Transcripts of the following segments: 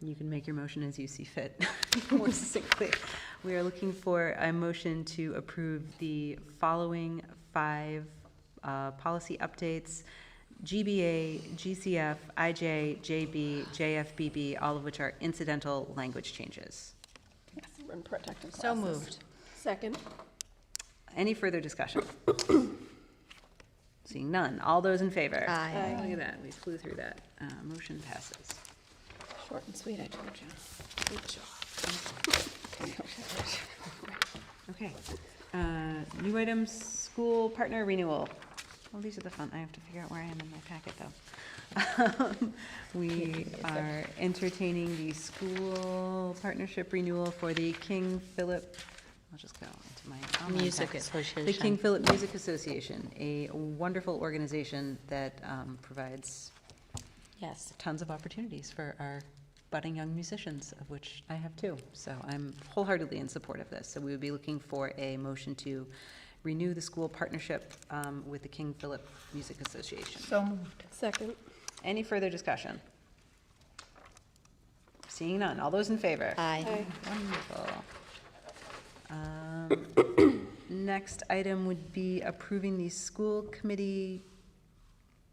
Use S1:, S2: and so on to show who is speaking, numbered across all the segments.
S1: You can make your motion as you see fit, more succinctly. We are looking for a motion to approve the following five uh, policy updates. GBA, GCF, IJ, JB, JFBB, all of which are incidental language changes.
S2: And protective
S3: So
S2: classes.
S3: moved.
S2: Second.
S1: Any further discussion? Seeing none. All those in favor?
S3: Aye.
S1: Look at that, we flew through that. Uh, Motion passes.
S2: Short and sweet, I told you. Good job.
S1: Okay. Uh, New items, school partner renewal. Well, these are the fun, I have to figure out where I am in my packet, though. We are entertaining the school partnership renewal for the King Philip, I'll just go into my online
S3: Music
S1: packet. The
S3: Association.
S1: King Philip Music Association, a wonderful organization that um, provides
S3: Yes.
S1: tons of opportunities for our budding young musicians, of which I have two. So I'm wholeheartedly in support of this. So we would be looking for a motion to renew the school partnership um, with the King Philip Music Association.
S4: So moved.
S2: Second.
S1: Any further discussion? Seeing none. All those in favor?
S3: Aye.
S1: Wonderful. Um, Next item would be approving the school committee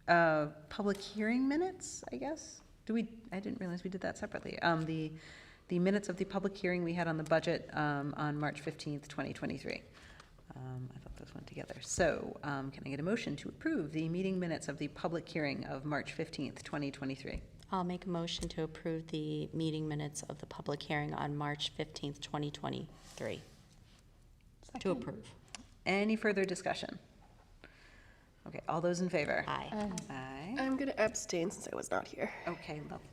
S1: uh, public hearing minutes, I guess? Do we, I didn't realize we did that separately. Um, The, the minutes of the public hearing we had on the budget um, on March 15th, 2023. Um, I thought those went together. So um, can I get a motion to approve the meeting minutes of the public hearing of March 15th, 2023?
S3: I'll make a motion to approve the meeting minutes of the public hearing on March 15th, 2023. To approve.
S1: Any further discussion? Okay, all those in favor?
S3: Aye.
S1: Aye.
S2: I'm going to abstain since I was not here.
S1: Okay, lovely.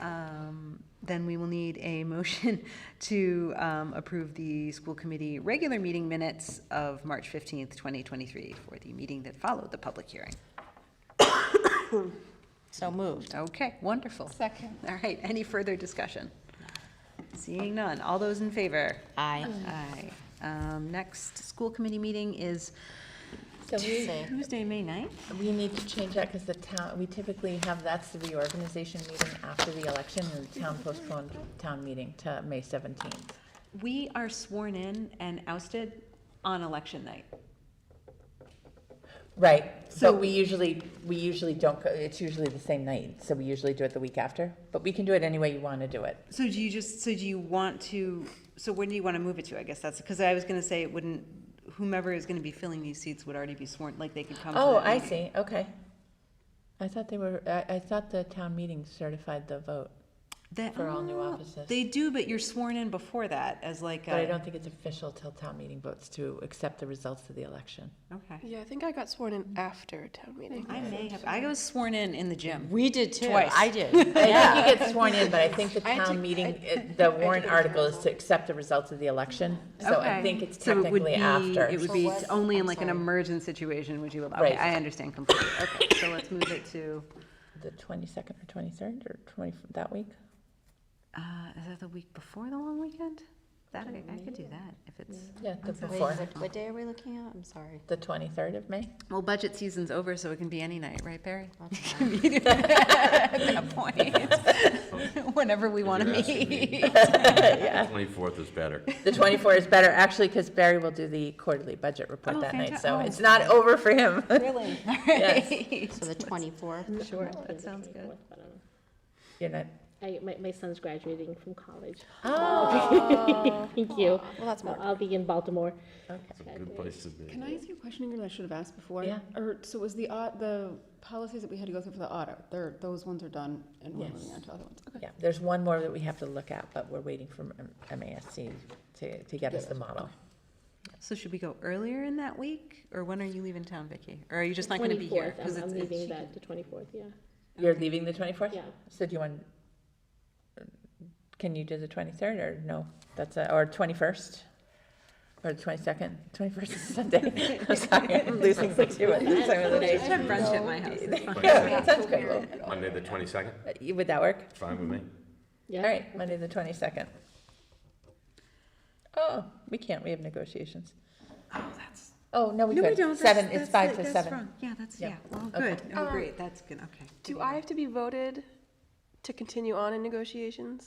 S1: Um, Then we will need a motion to um, approve the school committee regular meeting minutes of March 15th, 2023, for the meeting that followed the public hearing.
S3: So moved.
S1: Okay, wonderful.
S4: Second.
S1: All right, any further discussion? Seeing none, all those in favor?
S3: Aye.
S1: Aye. Um, Next school committee meeting is
S4: So we,
S3: Say.
S1: Tuesday, May 9th?
S4: we need to change that because the town, we typically have, that's the reorganization meeting after the election and the town postponed town meeting to May 17th.
S1: We are sworn in and ousted on election night.
S4: Right,
S1: So-
S4: but we usually, we usually don't, go it's usually the same night, so we usually do it the week after. But we can do it any way you want to do it.
S1: So do you just, so do you want to, so when do you want to move it to? I guess that's, because I was going to say it wouldn't, whomever is going to be filling these seats would already be sworn, like they could come to
S4: Oh,
S1: that
S4: I
S1: meeting.
S4: see, okay. I thought they were, I, I thought the town meeting certified the vote,
S1: That-
S4: For all new
S1: oh,
S4: offices.
S1: They do, but you're sworn in before that as like
S4: but I
S1: a,
S4: don't think it's official till town meeting votes to accept the results of the election.
S1: okay.
S2: Yeah, I think I got sworn in after town meeting.
S1: I may have, I was sworn in in the gym.
S3: We did too.
S1: Twice.
S3: I did.
S4: I think you get sworn in, but I think the
S2: I had to-
S4: town meeting,
S2: I-
S4: it- the warrant
S2: the
S4: article is to accept the results of the election. So I
S1: Okay.
S4: think it's
S1: So it would
S4: technically
S1: be-
S4: after.
S1: It would be
S3: what?
S1: only in
S3: I'm
S1: like an
S3: sorry.
S1: emergent situation would you allow, okay,
S4: Right.
S1: I understand completely. Okay, so let's move it to,
S4: The twenty-second or twenty-third or twenty, that week?
S1: uh, is that the week before the long weekend? That, I I could do that if it's.
S4: Yeah, the
S3: Wait,
S4: before,
S3: what what day are we looking at? I'm sorry.
S4: the twenty-third of May.
S1: Well, budget season's over, so it can be any night, right, Barry? At that point, whenever we want to
S5: You're asking me.
S1: meet.
S5: Twenty-fourth is better.
S4: The twenty-four is better, actually, because Barry will do the quarterly budget report
S1: Oh,
S4: that night,
S1: fanta-
S4: so
S1: oh.
S4: it's not over for him.
S1: Really? All right.
S3: So the 24th?
S1: Sure,
S6: Oh,
S1: that sounds good.
S4: You're not,
S6: I, my, my son's graduating from college.
S4: oh,
S6: Thank you.
S2: Well, that's
S6: So
S2: more.
S6: I'll be in Baltimore.
S5: It's a good place to be.
S7: Can I ask you a question again that I should have asked before?
S4: Yeah.
S7: Or, so was the, au- the policies that we had to go through for the audit, they're, those ones are done and we're
S4: Yes.
S7: moving on to other ones? Okay.
S4: yeah, there's one more that we have to look at, but we're waiting for M- MASC to, to get us the model.
S1: So should we go earlier in that week, or when are you leaving town, Vicky? Or are you just not going to be here?
S6: 24th.
S1: 'Cause
S6: I'm, I'm
S1: it's- it's-
S6: leaving that the twenty-fourth, yeah.
S4: You're leaving the twenty-fourth?
S6: Yeah.
S4: So do you want, can you do the twenty-third or no? That's a, or twenty-first? Or the twenty-second? Twenty-first is Sunday. I'm sorry, I'm losing my two at the time of
S1: Just
S4: the day.
S1: have brunch at my house. It's fine.
S4: Yeah, that sounds great.
S5: Monday, the twenty-second,
S4: Uh, Would that work?
S5: it's fine with me.
S6: Yeah.
S4: All right, Monday, the twenty-second. Oh, we can't, we have negotiations.
S1: Oh, that's.
S4: Oh, no, we
S1: No, we
S4: could.
S1: don't. that's-
S4: Seven,
S1: that's
S4: it's five
S1: the-
S4: to
S1: that's
S4: seven.
S1: wrong. Yeah, that's,
S4: Yeah.
S6: Um,
S1: yeah. Oh,
S4: Okay.
S1: good. Oh, great. That's good. Okay.
S2: Do I have to be voted to continue on in negotiations?